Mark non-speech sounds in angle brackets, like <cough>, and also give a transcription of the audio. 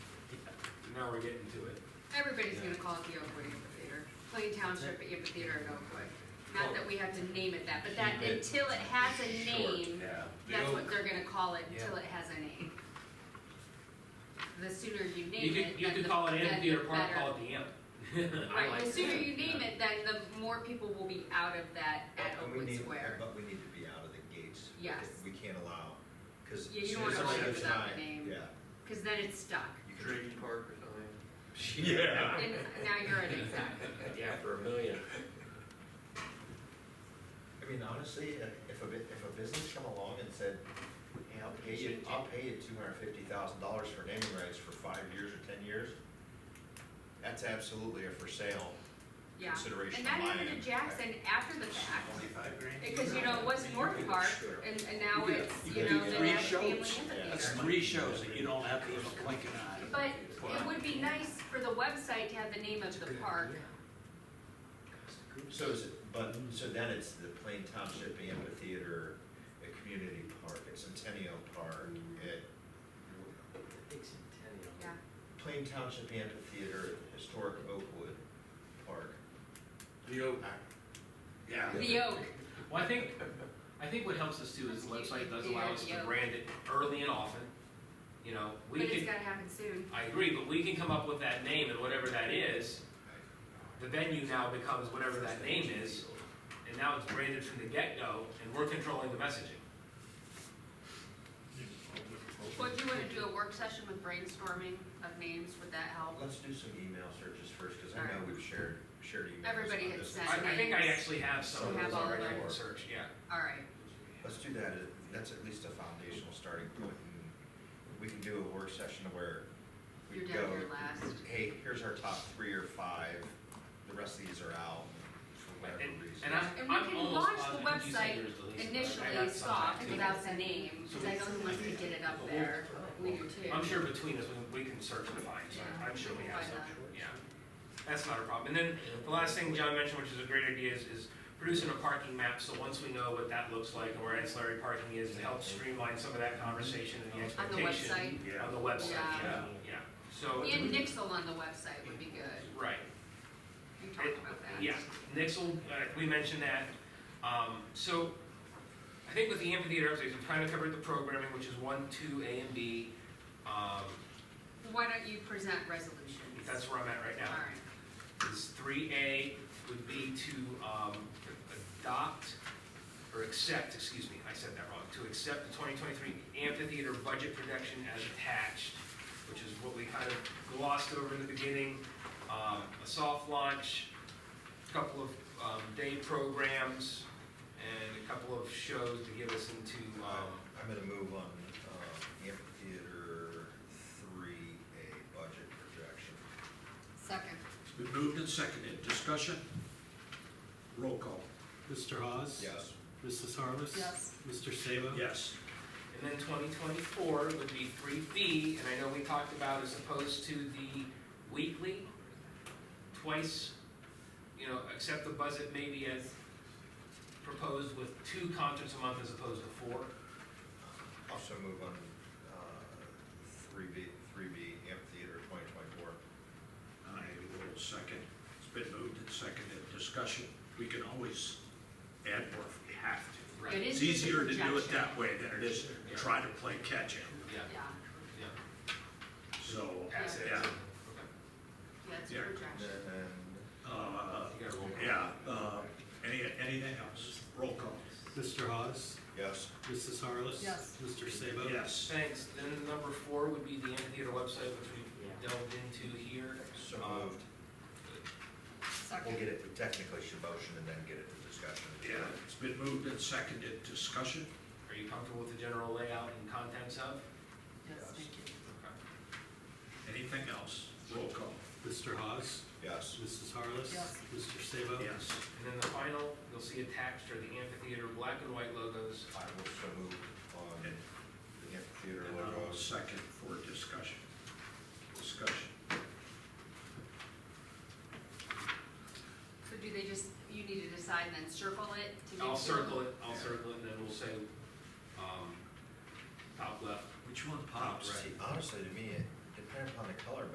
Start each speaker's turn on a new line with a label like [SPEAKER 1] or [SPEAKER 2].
[SPEAKER 1] now we're getting to it.
[SPEAKER 2] Everybody's gonna call it the Oakwood Amphitheater, Plain Township Amphitheater at Oakwood. Not that we have to name it that, but that,
[SPEAKER 3] Keep it
[SPEAKER 2] until it has a name,
[SPEAKER 3] Yeah.
[SPEAKER 1] The
[SPEAKER 2] that's what
[SPEAKER 1] Oak.
[SPEAKER 2] they're gonna call it,
[SPEAKER 3] Yeah.
[SPEAKER 2] until it has a name. The sooner you
[SPEAKER 1] You
[SPEAKER 2] name
[SPEAKER 1] could,
[SPEAKER 2] it,
[SPEAKER 1] you
[SPEAKER 2] then
[SPEAKER 1] could
[SPEAKER 2] the-
[SPEAKER 1] call it
[SPEAKER 2] then the
[SPEAKER 1] amphitheater park,
[SPEAKER 2] better-
[SPEAKER 1] call it the amp. I like
[SPEAKER 2] Right, the
[SPEAKER 1] it.
[SPEAKER 2] sooner you name
[SPEAKER 3] Yeah.
[SPEAKER 2] it, then the more people will be out of that at
[SPEAKER 4] And we
[SPEAKER 2] Oakwood
[SPEAKER 4] need-
[SPEAKER 2] Square.
[SPEAKER 4] But we need to be out of the gates.
[SPEAKER 2] Yes.
[SPEAKER 4] We can't allow, because.
[SPEAKER 2] Yeah, you don't wanna
[SPEAKER 1] open
[SPEAKER 2] without the name.
[SPEAKER 4] Yeah.
[SPEAKER 2] Cause then it's stuck,
[SPEAKER 4] you can-
[SPEAKER 5] Drayton Park or something.
[SPEAKER 4] <laughs> Yeah.
[SPEAKER 2] and now you're an exact.
[SPEAKER 5] Yeah, for a million.
[SPEAKER 4] I mean, honestly, if if a, bu- if a business come along and said, hey, I'll pay you, I'll pay you two hundred and fifty thousand dollars for naming rights for five years or ten years, that's absolutely a for sale
[SPEAKER 2] yeah.
[SPEAKER 4] consideration
[SPEAKER 2] And
[SPEAKER 4] of
[SPEAKER 2] that
[SPEAKER 4] mine.
[SPEAKER 2] happened to Jackson after the fact,
[SPEAKER 3] Twenty-five grand.
[SPEAKER 2] because you know, it was North Park, and, and now
[SPEAKER 5] You could-
[SPEAKER 2] it's,
[SPEAKER 5] you
[SPEAKER 2] you
[SPEAKER 5] could
[SPEAKER 2] know,
[SPEAKER 5] do
[SPEAKER 2] the
[SPEAKER 5] three
[SPEAKER 2] Nash Family
[SPEAKER 5] shows.
[SPEAKER 4] That's
[SPEAKER 2] Amphitheater.
[SPEAKER 3] Three shows that you don't have people clicking on.
[SPEAKER 2] But it would be nice for the website to have the name of the park,
[SPEAKER 4] So is it, but, so then it's the Plain Township Amphitheater, a community park, at Centennial Park,
[SPEAKER 2] Mm-hmm.
[SPEAKER 4] at
[SPEAKER 5] Big centennial.
[SPEAKER 2] yeah.
[SPEAKER 4] Plain Township Amphitheater, at Historic Oakwood Park.
[SPEAKER 3] The Oak. Yeah.
[SPEAKER 2] The Oak,
[SPEAKER 1] Well, I think, I think what helps us too is the website does allow us to
[SPEAKER 2] Yeah.
[SPEAKER 1] brand it early and often. You know, we
[SPEAKER 2] but it's
[SPEAKER 1] can,
[SPEAKER 2] gotta happen soon.
[SPEAKER 1] I agree, but we can come up with that name and whatever that is. The venue now becomes whatever that name is, and now it's branded from the get-go, and we're controlling the messaging.
[SPEAKER 2] Would you wanna do a work session with brainstorming of names, would that help?
[SPEAKER 4] Let's do some email searches first, because I know
[SPEAKER 2] Alright.
[SPEAKER 4] we've shared, shared emails.
[SPEAKER 2] Everybody
[SPEAKER 4] on
[SPEAKER 2] had
[SPEAKER 4] this.
[SPEAKER 2] sent.
[SPEAKER 1] I, I think I actually have some of
[SPEAKER 2] Have
[SPEAKER 1] those
[SPEAKER 2] all
[SPEAKER 1] already
[SPEAKER 2] of
[SPEAKER 1] in
[SPEAKER 4] them.
[SPEAKER 1] search, yeah.
[SPEAKER 2] Alright,
[SPEAKER 4] Let's do that, uh, that's at least a foundational starting point, and we can do a work session where we
[SPEAKER 2] you're
[SPEAKER 4] go.
[SPEAKER 2] down here last,
[SPEAKER 4] Hey, here's our top three or five, the rest of these are out for whatever
[SPEAKER 1] And-
[SPEAKER 4] reason.
[SPEAKER 1] And I'm,
[SPEAKER 2] And we
[SPEAKER 1] I'm
[SPEAKER 2] can
[SPEAKER 1] almost
[SPEAKER 2] launch the
[SPEAKER 1] positive you said
[SPEAKER 2] website
[SPEAKER 1] yours deleted. I
[SPEAKER 2] initially
[SPEAKER 1] got some back,
[SPEAKER 2] soft
[SPEAKER 1] too.
[SPEAKER 2] without a name, cause I know who wants to get it up there, we do too.
[SPEAKER 1] I'm sure between us, we- we can search and find, so
[SPEAKER 2] Yeah.
[SPEAKER 1] I'm sure we have
[SPEAKER 2] Find
[SPEAKER 1] some,
[SPEAKER 2] that.
[SPEAKER 1] yeah. That's not a problem. And then the last thing John mentioned, which is a great idea, is, is producing a parking map, so once we know what that looks like and where ancillary parking is, to help streamline some of that conversation and the
[SPEAKER 2] On the
[SPEAKER 1] expectation.
[SPEAKER 2] website,
[SPEAKER 3] Yeah.
[SPEAKER 1] On the website,
[SPEAKER 2] Yeah.
[SPEAKER 1] yeah, yeah. So,
[SPEAKER 2] and Nixel on the website would be good,
[SPEAKER 1] right,
[SPEAKER 2] we talked about that.
[SPEAKER 1] yeah. Nixel, uh, we mentioned that. Um, so I think with the amphitheater upstairs, we're trying to cover the programming, which is one, two, A and B. Um,
[SPEAKER 2] Why don't you present resolutions?
[SPEAKER 1] that's where I'm at right now.
[SPEAKER 2] Alright.
[SPEAKER 1] is three A would be to um, adopt, or accept, excuse me, I said that wrong, to accept the twenty twenty-three amphitheater budget projection as attached, which is what we kind of glossed over in the beginning, um, a soft launch, a couple of um, day programs, and a couple of shows to get us into, um,
[SPEAKER 4] I'm gonna move on, um, amphitheater three, a budget projection.
[SPEAKER 2] Second,
[SPEAKER 3] It's been moved and seconded. Discussion? Roll call.
[SPEAKER 6] Mr. Hawes?
[SPEAKER 4] Yes.
[SPEAKER 6] Mrs. Harvest?
[SPEAKER 2] yes,
[SPEAKER 6] Mr. Sabo?
[SPEAKER 3] Yes.
[SPEAKER 1] And then twenty twenty-four would be three B, and I know we talked about as opposed to the weekly, twice, you know, except the budget maybe as proposed with two concerts a month as opposed to four.
[SPEAKER 4] Also move on, uh, three B, three B amphitheater twenty twenty-four.
[SPEAKER 3] I will second. It's been moved and seconded. Discussion? We can always add more if we have to.
[SPEAKER 2] it is just
[SPEAKER 3] It's
[SPEAKER 2] a
[SPEAKER 3] easier to do it
[SPEAKER 2] projection.
[SPEAKER 3] that way than it is to try to play catch-up.
[SPEAKER 1] Yeah,
[SPEAKER 2] Yeah,
[SPEAKER 1] yeah.
[SPEAKER 3] So,
[SPEAKER 1] Pass it.
[SPEAKER 3] Yeah.
[SPEAKER 1] Okay.
[SPEAKER 2] yeah, it's a
[SPEAKER 3] Yeah.
[SPEAKER 4] And
[SPEAKER 2] projection.
[SPEAKER 4] then,
[SPEAKER 3] uh,
[SPEAKER 1] You gotta roll call.
[SPEAKER 3] yeah, uh, any, anything else? Roll call.
[SPEAKER 6] Mr. Hawes?
[SPEAKER 4] yes,
[SPEAKER 6] Mrs. Harless?
[SPEAKER 2] Yes.
[SPEAKER 6] Mr. Sabo?
[SPEAKER 3] Yes.
[SPEAKER 1] Thanks. Then number four would be the amphitheater website, which we delved into here.
[SPEAKER 4] so
[SPEAKER 1] Um,
[SPEAKER 4] moved. We'll
[SPEAKER 2] Second,
[SPEAKER 4] get it, we technically should motion and then get it to discussion.
[SPEAKER 3] Yeah, it's been moved and seconded. Discussion?
[SPEAKER 1] Are you comfortable with the general layout and contents of?
[SPEAKER 2] yes, thank you.
[SPEAKER 1] Okay.
[SPEAKER 3] Anything else? Roll call.
[SPEAKER 6] Mr. Hawes?
[SPEAKER 4] Yes,
[SPEAKER 6] Mrs. Harless?
[SPEAKER 2] Yes.
[SPEAKER 6] Mr. Sabo?
[SPEAKER 3] Yes.
[SPEAKER 1] And then the final, you'll see attached are the amphitheater black and white logos.
[SPEAKER 4] I will so move on the amphitheater
[SPEAKER 3] And um, I will
[SPEAKER 4] logos.
[SPEAKER 3] second for discussion. Discussion.
[SPEAKER 2] So do they just, you need to decide and then circle it to make sure?
[SPEAKER 1] I'll circle it, I'll
[SPEAKER 4] Yeah.
[SPEAKER 1] circle it, and then we'll say, um, top left.
[SPEAKER 3] Which one
[SPEAKER 1] pops?
[SPEAKER 4] See, honestly, to me, it depends upon the color